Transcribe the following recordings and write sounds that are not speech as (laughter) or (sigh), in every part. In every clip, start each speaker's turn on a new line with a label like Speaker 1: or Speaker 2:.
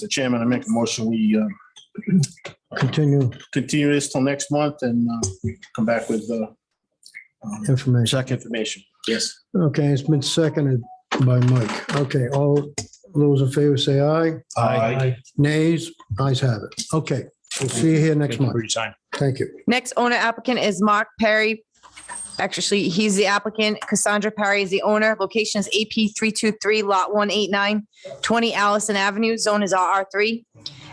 Speaker 1: Mr. Chairman, I make a motion, we uh,
Speaker 2: Continue
Speaker 1: continue this till next month and uh, come back with uh, um,
Speaker 2: information.
Speaker 1: exact information. Yes.
Speaker 2: Okay, it's been seconded by Mike. Okay, all those in favor say aye. Nays, ayes have it. Okay, we'll see you here next month. Thank you.
Speaker 3: Next owner applicant is Mark Perry. Actually, he's the applicant. Cassandra Perry is the owner. Location is AP 323 Lot 189, 20 Allison Avenue. Zone is RR3.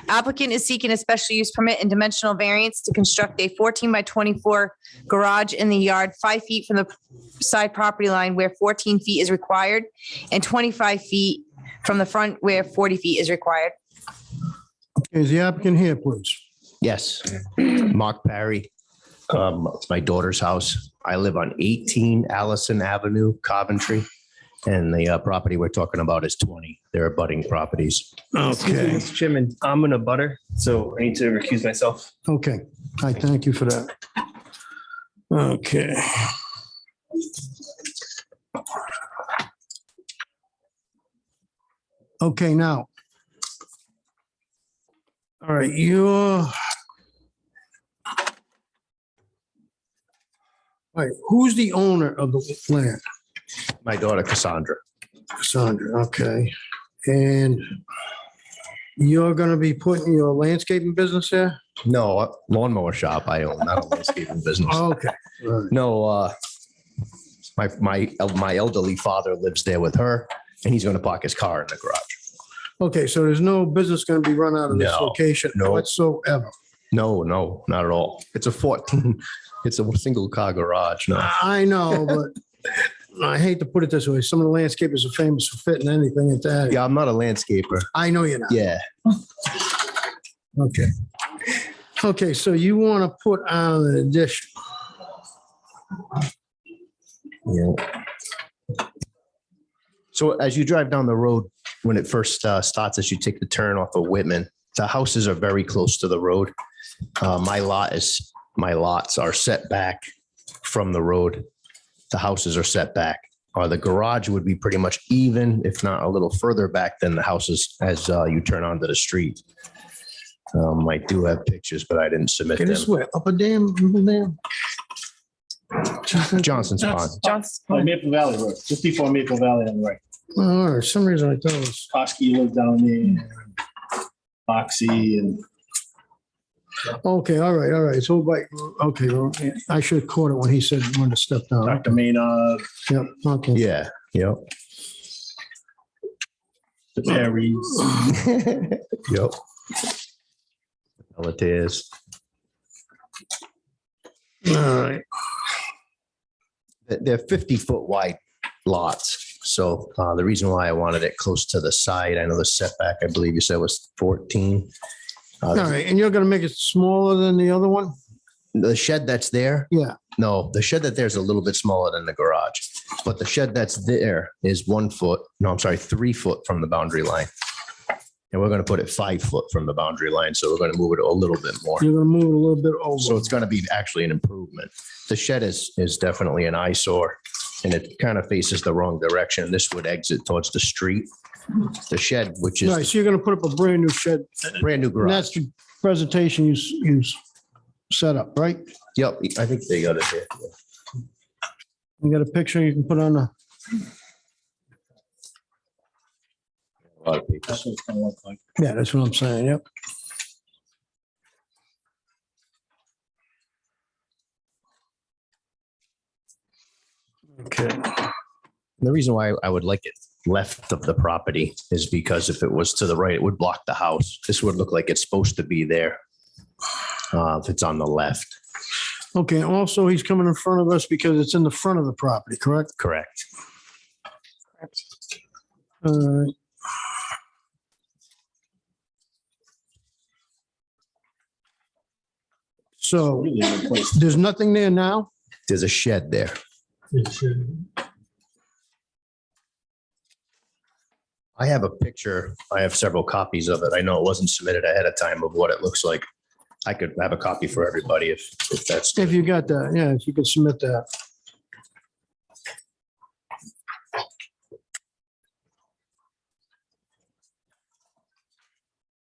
Speaker 3: Applicant is seeking a special use permit and dimensional variance to construct a 14 by 24 garage in the yard, five feet from the side property line where 14 feet is required, and 25 feet from the front where 40 feet is required.
Speaker 2: Is the applicant here, please?
Speaker 4: Yes, Mark Perry. Um, It's my daughter's house. I live on 18 Allison Avenue, Coventry. And the uh, property we're talking about is 20. They're abutting properties.
Speaker 5: Excuse me, Mr. Chairman, I'm in a butter, so I need to recuse myself.
Speaker 2: Okay, I thank you for that. Okay. Okay, now. All right, you're. All right, who's the owner of the land?
Speaker 4: My daughter Cassandra.
Speaker 2: Cassandra, okay. And you're gonna be putting your landscaping business there?
Speaker 4: No, uh, lawnmower shop I own, not a landscaping business.
Speaker 2: Okay. all right.
Speaker 4: No, uh, my, my, my elderly father lives there with her and he's going to park his car in the garage.
Speaker 2: Okay, so there's no business going to be run out of this
Speaker 4: No,
Speaker 2: location
Speaker 4: no.
Speaker 2: whatsoever.
Speaker 4: No, no, not at all. It's a 14, (laughs) it's a single car garage. No.
Speaker 2: I know, but I hate to put it this way. Some of the landscapers are famous for fitting anything into that.
Speaker 4: Yeah, I'm not a landscaper.
Speaker 2: I know you're not.
Speaker 4: Yeah.
Speaker 2: Okay. Okay, so you want to put on an addition.
Speaker 4: Yeah. So as you drive down the road, when it first uh, starts, as you take the turn off of Whitman, the houses are very close to the road. Uh, My lot is, my lots are set back from the road. The houses are set back, or the garage would be pretty much even, if not a little further back than the houses as uh, you turn onto the street. Um, I do have pictures, but I didn't submit
Speaker 2: Okay, this
Speaker 4: them.
Speaker 2: way, up a dam, little dam.
Speaker 4: Johnson's Pond.
Speaker 1: Oh, Maple Valley Road, just before Maple Valley on the right.
Speaker 2: Oh, for some reason I thought it was,
Speaker 1: Koski lives down there. Foxy and
Speaker 2: okay, all right, all right. So, like, okay, well, I should have caught it when he said he wanted to step down.
Speaker 1: Dr. Maynard,
Speaker 2: Yep, okay.
Speaker 4: Yeah, yep.
Speaker 1: the Perrys.
Speaker 4: Yep. Pelletiers.
Speaker 2: All right.
Speaker 4: They're- They're fifty foot wide lots. So uh, the reason why I wanted it close to the side, I know the setback, I believe you said was fourteen. Uh,
Speaker 2: All right, and you're going to make it smaller than the other one?
Speaker 4: The shed that's there,
Speaker 2: Yeah.
Speaker 4: no, the shed that there's a little bit smaller than the garage. But the shed that's there is one foot, no, I'm sorry, three foot from the boundary line. And we're going to put it five foot from the boundary line. So we're going to move it a little bit more.
Speaker 2: You're gonna move it a little bit
Speaker 4: So
Speaker 2: over.
Speaker 4: it's going to be actually an improvement. The shed is, is definitely an eyesore and it kind of faces the wrong direction. This would exit towards the street. The shed, which
Speaker 2: Right,
Speaker 4: is
Speaker 2: so you're gonna put up a brand new shed.
Speaker 4: the brand new
Speaker 2: And
Speaker 4: garage.
Speaker 2: that's the presentation you, s- you s- set up, right?
Speaker 4: Yep, I think they got it. there.
Speaker 2: You got a picture you can put on the,
Speaker 4: A lot of papers.
Speaker 1: That's what it's gonna look like.
Speaker 2: yeah, that's what I'm saying, yep. Okay,
Speaker 4: The reason why I would like it left of the property is because if it was to the right, it would block the house. This would look like it's supposed to be there. uh, If it's on the left.
Speaker 2: okay, also he's coming in front of us because it's in the front of the property, correct?
Speaker 4: Correct.
Speaker 2: All right. So
Speaker 1: Really good place.
Speaker 2: there's nothing there now?
Speaker 4: There's a shed there. I have a picture. I have several copies of it. I know it wasn't submitted ahead of time of what it looks like. I could have a copy for everybody if, if that's.
Speaker 2: If you got that, yeah, if you could submit that.